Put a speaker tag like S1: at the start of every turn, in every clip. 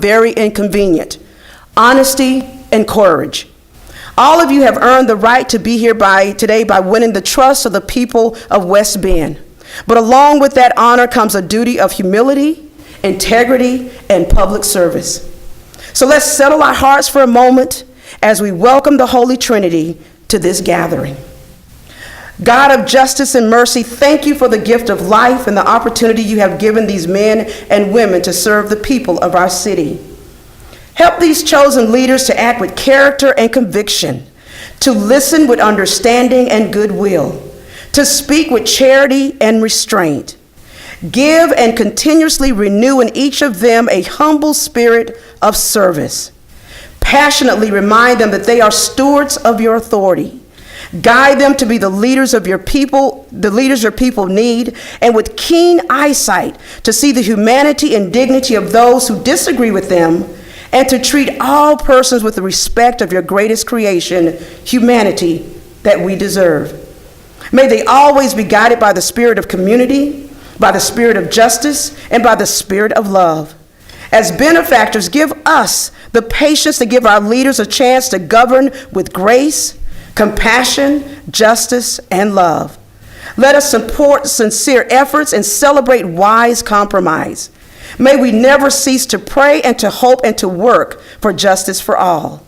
S1: very inconvenient, honesty, and courage. All of you have earned the right to be here by, today by winning the trust of the people of West Bend. But along with that honor comes a duty of humility, integrity, and public service. So let's settle our hearts for a moment as we welcome the Holy Trinity to this gathering. God of justice and mercy, thank you for the gift of life and the opportunity you have given these men and women to serve the people of our city. Help these chosen leaders to act with character and conviction, to listen with understanding and goodwill, to speak with charity and restraint. Give and continuously renew in each of them a humble spirit of service. Passionately remind them that they are stewards of your authority. Guide them to be the leaders of your people, the leaders your people need, and with keen eyesight to see the humanity and dignity of those who disagree with them, and to treat all persons with the respect of your greatest creation, humanity, that we deserve. May they always be guided by the spirit of community, by the spirit of justice, and by the spirit of love. As benefactors, give us the patience to give our leaders a chance to govern with grace, compassion, justice, and love. Let us support sincere efforts and celebrate wise compromise. May we never cease to pray and to hope and to work for justice for all.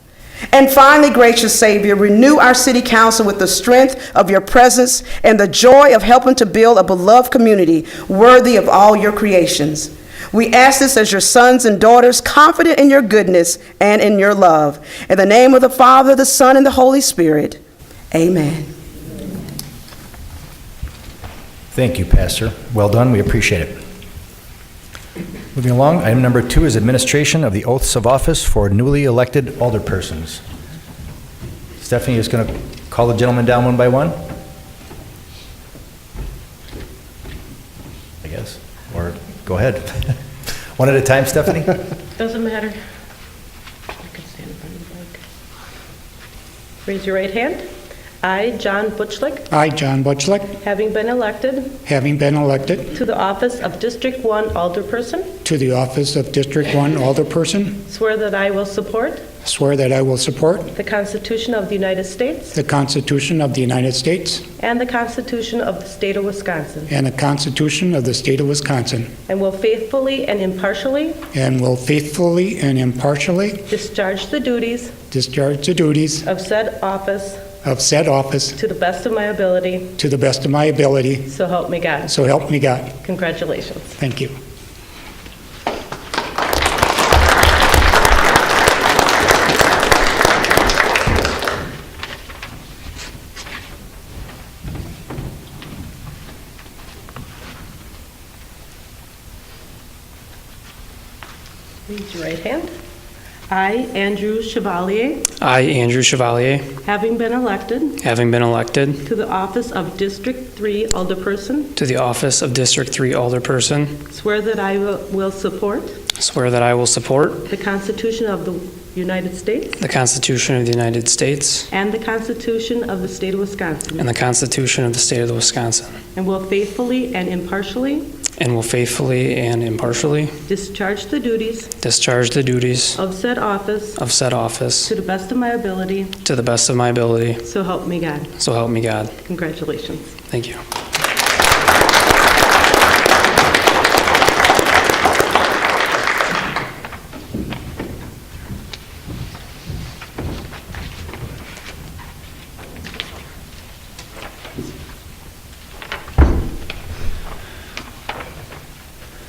S1: And finally, gracious Savior, renew our city council with the strength of your presence and the joy of helping to build a beloved community worthy of all your creations. We ask this as your sons and daughters, confident in your goodness and in your love. In the name of the Father, the Son, and the Holy Spirit, amen.
S2: Thank you, Pastor. Well done, we appreciate it. Moving along, item number two is administration of the oaths of office for newly elected alderpersons. Stephanie is going to call the gentlemen down one by one? I guess, or go ahead. One at a time, Stephanie?
S3: Doesn't matter. I could stand in front of the mic. Raise your right hand. I, John Butchlick,
S4: I, John Butchlick,
S3: having been elected
S4: having been elected
S3: to the office of District 1 Alderperson,
S4: to the office of District 1 Alderperson,
S3: swear that I will support
S4: swear that I will support
S3: the Constitution of the United States
S4: the Constitution of the United States
S3: and the Constitution of the State of Wisconsin,
S4: and the Constitution of the State of Wisconsin,
S3: and will faithfully and impartially
S4: and will faithfully and impartially
S3: discharge the duties
S4: discharge the duties
S3: of said office
S4: of said office
S3: to the best of my ability,
S4: to the best of my ability,
S3: so help me God.
S4: so help me God.
S3: Congratulations.
S4: Thank you.
S3: Raise your right hand. I, Andrew Chevalier,
S5: I, Andrew Chevalier,
S3: having been elected
S5: having been elected
S3: to the office of District 3 Alderperson,
S5: to the office of District 3 Alderperson,
S3: swear that I will will support
S5: swear that I will support
S3: the Constitution of the United States
S5: the Constitution of the United States
S3: and the Constitution of the State of Wisconsin,
S5: and the Constitution of the State of Wisconsin,
S3: and will faithfully and impartially
S5: and will faithfully and impartially
S3: discharge the duties
S5: discharge the duties
S3: of said office
S5: of said office
S3: to the best of my ability,
S5: to the best of my ability,
S3: so help me God.
S5: so help me God.
S3: Congratulations.
S5: Thank you.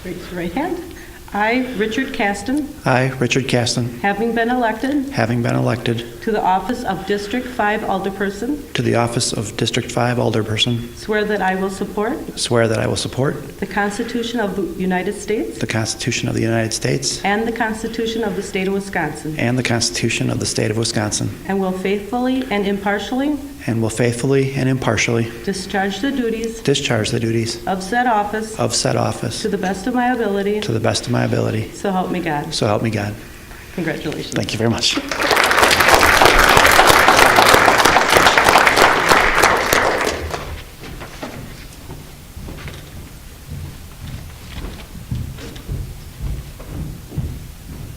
S3: Raise your right hand. I, Richard Caston,
S6: I, Richard Caston,
S3: having been elected
S6: having been elected
S3: to the office of District 5 Alderperson,
S6: to the office of District 5 Alderperson,
S3: Swear that I will support
S6: swear that I will support
S3: the Constitution of the United States
S6: the Constitution of the United States
S3: and the Constitution of the State of Wisconsin,
S6: and the Constitution of the State of Wisconsin,
S3: and will faithfully and impartially
S6: and will faithfully and impartially
S3: discharge the duties
S6: discharge the duties
S3: of said office
S6: of said office
S3: to the best of my ability,
S6: to the best of my ability.
S3: so help me God.
S6: So help me God.
S3: Congratulations.
S6: Thank you very much.